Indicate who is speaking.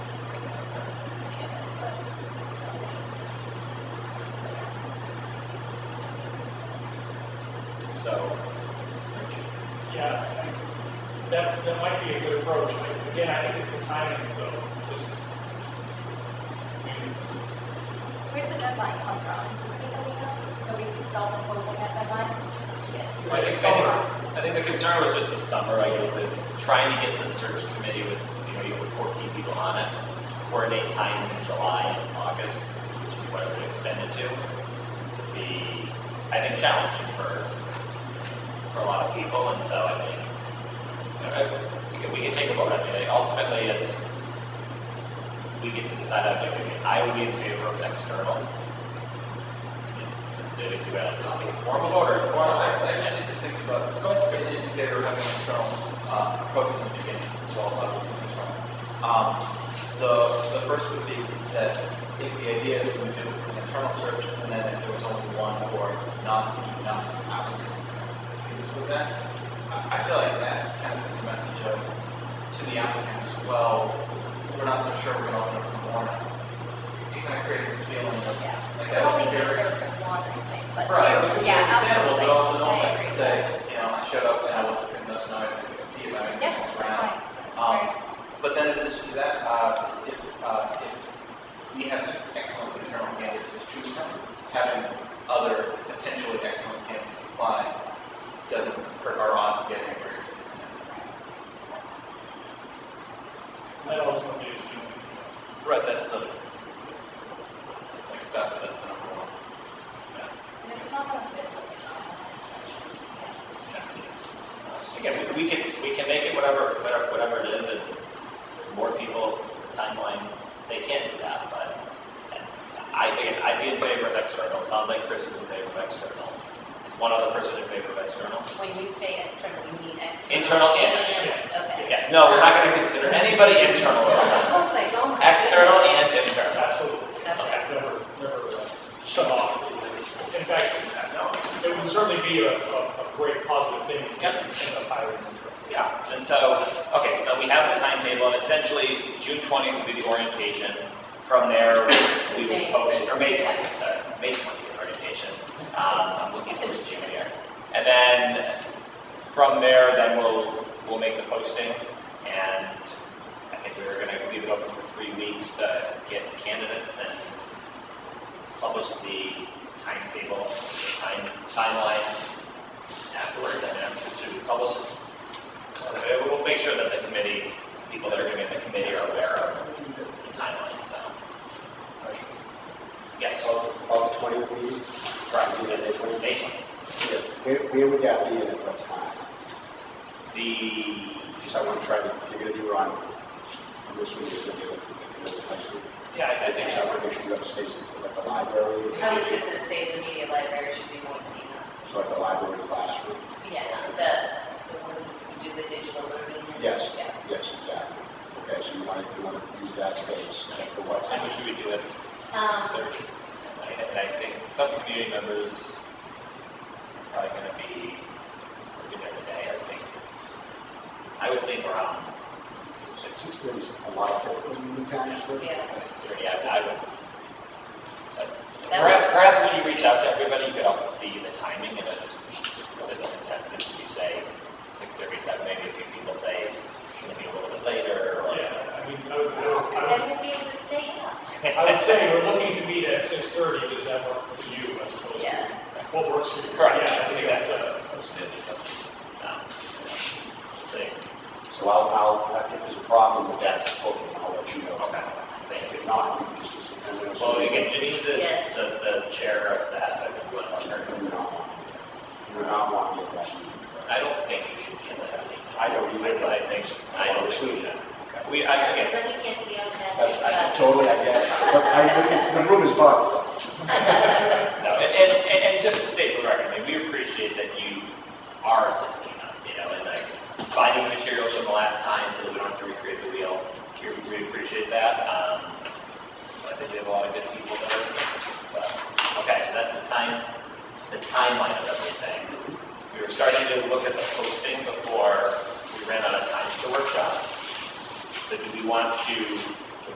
Speaker 1: that, that might be a good approach. I- Again, I think it's the timing though, just. I mean,
Speaker 2: Where's the deadline come from? Does anybody know? So we can solve proposing that deadline? Yes.
Speaker 3: I think, I think- I think the concern was just the summer, I get with trying to get the search committee with, you know, you with fourteen people on it, to coordinate times in July and August, which is whatever it extended to, would be, I think, challenging for, for a lot of people, and so I think, you know, I- we could, we could take a vote, I mean, ultimately, it's, we get to decide, I think, I would be in favor of external. Do we do it, just take a formal vote or
Speaker 4: Well,
Speaker 3: informal?
Speaker 4: I, I just think things about, go ahead, Chris, if they were having an external, uh, approach in the beginning, so I'll have this in external. Um, the, the first would be that if the idea is we do an internal search, and then if there was only one or not enough applicants, because with that, I, I feel like that kind of sends a message of, to the applicants, well, we're not so sure we're gonna open up tomorrow. It kind of creates this feeling of,
Speaker 2: Yeah.
Speaker 4: like,
Speaker 2: I
Speaker 4: that
Speaker 2: don't
Speaker 4: was
Speaker 2: think
Speaker 4: a
Speaker 2: there
Speaker 4: very.
Speaker 2: was one, I think, but
Speaker 4: Right, which
Speaker 2: two,
Speaker 4: is
Speaker 2: yeah,
Speaker 4: understandable,
Speaker 2: absolutely.
Speaker 4: but also don't
Speaker 2: I agree
Speaker 4: like to
Speaker 2: with
Speaker 4: say,
Speaker 2: that.
Speaker 4: you know, I showed up and I wasn't good enough, so now I have to see if I
Speaker 2: Yeah,
Speaker 4: can
Speaker 2: right.
Speaker 4: around. Um, But then in addition to that, uh, if, uh, if we have excellent internal candidates to choose from, having other potentially excellent candidates apply doesn't hurt our odds of getting a raise.
Speaker 1: That ultimately is, you
Speaker 3: Right, that's the,
Speaker 4: Like, so that's, that's the number one.
Speaker 2: And if it's not gonna fit, then it's not gonna fit.
Speaker 3: again, we we can, we can make it whatever, whatever, whatever it is, and more people, the timeline, they can do that, but and I think, I'd be in favor of external, It sounds like Chris is in favor of external. Is one other person in favor of external?
Speaker 5: When you say external, you mean external?
Speaker 3: Internal and external.
Speaker 5: Okay.
Speaker 3: Yes, no, we're not gonna consider anybody internal at all.
Speaker 5: I was like, oh my goodness.
Speaker 3: External and
Speaker 1: know,
Speaker 3: internal.
Speaker 1: absolutely.
Speaker 5: That's
Speaker 1: Okay, Never, never uh, shut off. In fact,
Speaker 3: No,
Speaker 1: it would certainly be a, a, a great positive thing if you
Speaker 3: Yep.
Speaker 1: end up hiring an internal.
Speaker 3: Yeah, and so, okay, so now we have the timetable, and essentially, June twentieth will be the orientation. From there, we will
Speaker 5: May.
Speaker 3: post, or May twentieth, sorry, May twentieth orientation. Um, I'm looking for this June here. And then, from there, then we'll, we'll make the posting, and I think we were gonna leave it open for three weeks to get candidates and publish the timetable, time, timeline afterward, and then should we publish it uh, We'll make sure that the committee, people that are going to be in the committee are aware of the timeline, so. Yes,
Speaker 6: Of, of 20 of these?
Speaker 3: right, we did it for May.
Speaker 6: Yes. Where, where would that be and at what time?
Speaker 3: The,
Speaker 6: Just I want to try to, you're going to do Ron. And this one is going to be the middle high school.
Speaker 3: yeah, I- I think
Speaker 6: So I
Speaker 3: so.
Speaker 6: want to make sure you have a space that's like the library,
Speaker 5: I was just gonna say the media library should be more than enough.
Speaker 6: so like the library classroom.
Speaker 5: Yeah, the, the one you do the digital learning. and-
Speaker 6: Yes,
Speaker 5: Yeah.
Speaker 6: yes, exactly. Okay, so you want to, you want to use that space and for what
Speaker 3: Time
Speaker 6: time?
Speaker 3: should we do it?
Speaker 5: Um,
Speaker 3: Six thirty. And I think some community members are probably going to be working every day, I think. I would think around six,
Speaker 6: Six thirty is a lot of typical meeting times for.
Speaker 5: Yeah.
Speaker 3: six thirty, I I would.
Speaker 5: That
Speaker 3: Perhaps,
Speaker 5: was-
Speaker 3: perhaps when you reach out to everybody, you could also see the timing and if there's a consensus, if you say six thirty, seven, maybe a few people say it's gonna be a little bit later or.
Speaker 1: Yeah, I mean, I would, I would,
Speaker 5: Because
Speaker 1: I
Speaker 5: that
Speaker 1: would,
Speaker 5: could be the state law.
Speaker 1: I would say we're looking to meet at six thirty, does that work for you as opposed
Speaker 5: Yeah.
Speaker 1: to what works for you?
Speaker 3: Correct.
Speaker 1: Yeah, I think that's uh, a,
Speaker 3: So, see,
Speaker 6: So I'll, I'll, if there's a problem with that, okay, I'll let you know.
Speaker 3: okay, thank you.
Speaker 6: If not, we can just assume.
Speaker 3: Well, again, Janine's the,
Speaker 5: Yes.
Speaker 3: the, the chair of that, so I think you want to
Speaker 6: I
Speaker 3: learn.
Speaker 6: do not want, I do not want to rush
Speaker 3: I don't think you should be in the heavy.
Speaker 6: I don't either.
Speaker 3: But I think, I don't think you should. We, I,
Speaker 5: Yeah,
Speaker 3: again,
Speaker 5: because then you can't see on that.
Speaker 6: That's, I
Speaker 5: big, uh,
Speaker 6: totally, I get it. But I, but it's, the room is bugged.
Speaker 3: No, and, and, and and just to state for the record, I mean, we appreciate that you are assisting us, you know, and like finding materials from the last time so that we don't have to recreate the wheel. We, we appreciate that. Um, so I think we have a lot of good people that are, but, okay, so that's the time, the timeline of everything. We were starting to look at the posting before we ran out of time for the workshop. So do we want to